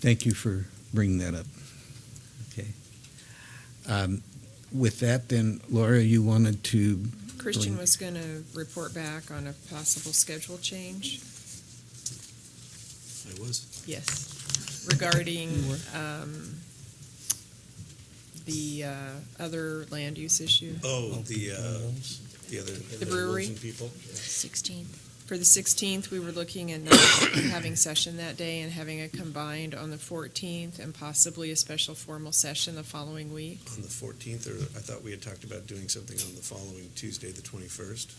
Thank you for bringing that up. Okay. Um, With that, then, Laura, you wanted to, Christian Brilliant. was going to report back on a possible schedule change. I was. Yes. Regarding um, the uh, other land use issue Oh, the, uh, the other. The brewery? Wilson People. Sixteenth. for the 16th, we were looking at not having session that day and having it combined on the 14th and possibly a special formal session the following week. On the fourteenth, or I thought we had talked about doing something on the following Tuesday, the twenty-first.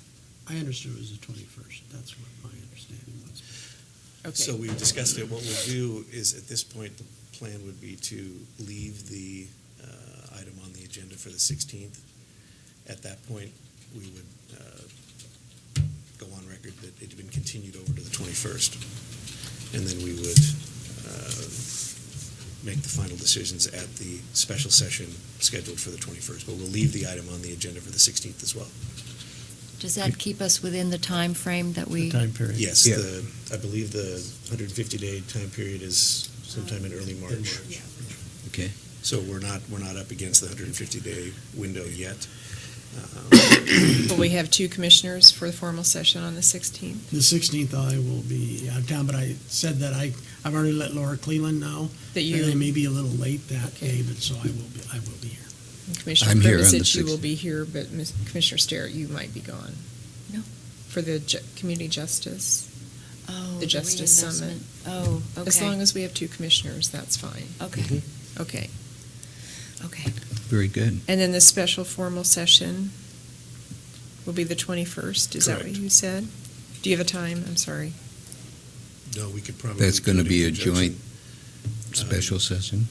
I understood it was the twenty-first, that's what my understanding was. So Okay. we discussed it. What we'll do is, at this point, the plan would be to leave the uh, item on the agenda for the 16th. At that point, we would uh, go on record that it had been continued over to the 21st. And then we would uh, make the final decisions at the special session scheduled for the 21st. But we'll leave the item on the agenda for the 16th as well. Does that keep us within the time frame that The we, time period. Yes, Yeah. the, I believe the 150-day time period is sometime in early In March. March. okay, So we're not, we're not up against the 150-day window yet. Um, But we have two commissioners for the formal session on the 16th. The sixteenth, I will be out of town, but I said that I, I've already let Laura Cleland know. That And I you, may be a little late that Okay. day, but so I will be, I will be here. Commissioner I'm here Privet on said the she will 16th. be here, but Ms- Commissioner Starrett, you might be gone. No. For the ju- community justice. oh, The the Justice Summit. reinvestment? Oh, okay. As long as we have two commissioners, that's fine. Okay, Mm-hmm. Okay. okay. very good. And then the special formal session will be the 21st, is that what Correct. you said? Do you have a time? I'm sorry. No, we could probably. That's going to do it be a in joint conjunction. special session?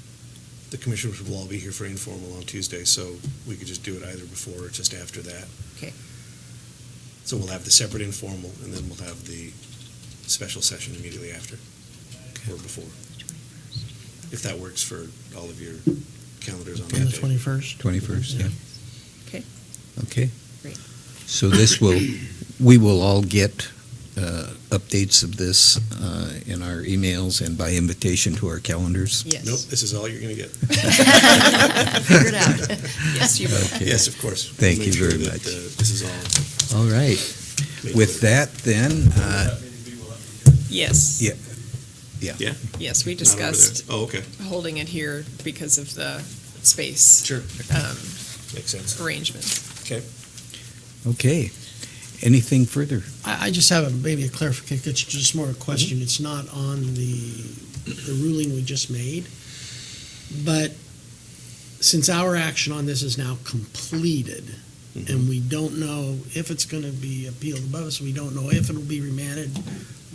The commissioners will all be here for informal on Tuesday, so we could just do it either before or just after that. Okay. So we'll have the separate informal, and then we'll have the special session immediately after, or before, if that works for all of your calendars on On that the day. twenty-first? 21st, yeah. Okay. Okay. Great. So this will, we will all get uh, updates of this uh, in our emails and by invitation to our calendars? Nope, this is all you're going to get. Figured out. Yes, you will. Okay. Yes, of course. We'll Thank make you sure very that, much. uh, This is all. All right. made With clear. that, then, uh, Yes. Yeah. Yeah. Yeah. Yes, we Not over there. discussed Oh, okay, holding it here because of the space sure, um, makes sense. arrangements. Okay. okay. Anything further? I, I just have a, maybe a clarification, it's just more a question, it's not on the, the ruling we just made. But since our action on this is now completed, and we don't know if it's gonna be appealed above us, we don't know if it'll be remanded,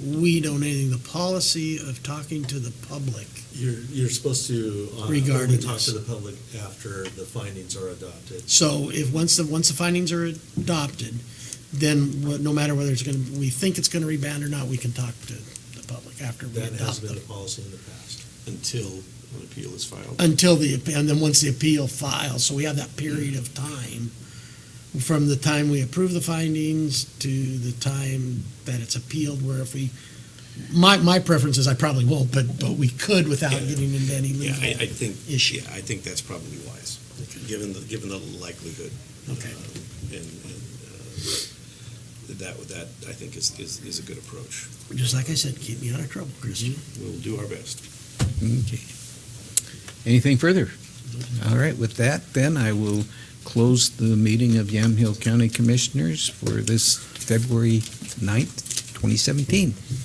we don't anything, the policy of talking to the public, You're, you're supposed to uh, Regarding only talk this. to the public after the findings are adopted. So if, once the, once the findings are adopted, then wha- no matter whether it's gonna, we think it's gonna rebound or not, we can talk to the public after we That has adopt been them. the policy in the past. Until an appeal is filed. Until the, and then once the appeal files, so we have that period of time from the time we approve the findings to the time that it's appealed, where if we, my, my preference is I probably won't, but, but we could without Yeah. getting into any Yeah, legal. I, I think, issue. yeah, I think that's probably wise, given the, given the likelihood. Okay. um, And, and, uh, that, that, I think is, is, is a good approach. Just like I said, keep me out of trouble, Mm-hmm. Christian. We'll do our best. Okay. Anything further? All right, with that, then I will close the meeting of Yamhill County Commissioners for this February 9th, 2017.